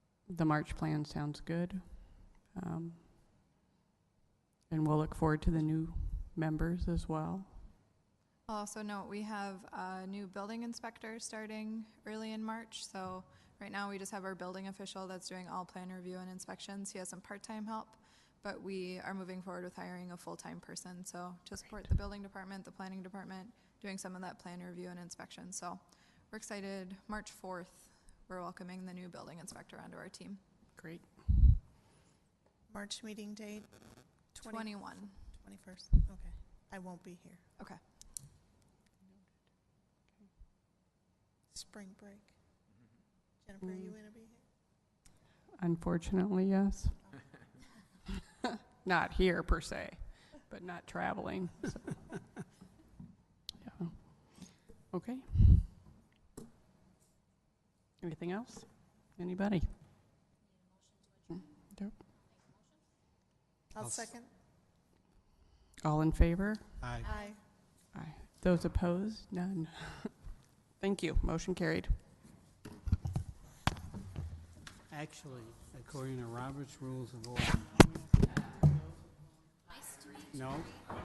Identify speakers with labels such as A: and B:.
A: the March plan sounds good. Um, And we'll look forward to the new members as well.
B: I'll also note, we have a new building inspector starting early in March, so right now we just have our building official that's doing all plan review and inspections. He has some part-time help, but we are moving forward with hiring a full-time person, so to support the building department, the planning department, doing some of that plan review and inspection, so we're excited. March fourth, we're welcoming the new building inspector onto our team.
A: Great.
C: March meeting date? 20
B: Twenty-one,
C: 21st, okay. I won't be here.
B: okay.
C: Spring break. Jennifer, are you
A: Mm.
C: going to be here?
A: Unfortunately, yes. Not here per se, but not traveling. so. Yeah. Okay. Anything else? Anybody?
C: I'll
D: I'll s-
C: second.
A: All in favor?
D: Aye.
C: Aye.
A: Aye. Those opposed? None. Thank you. Motion carried.
D: Actually, according to Robert's Rules of Order. No?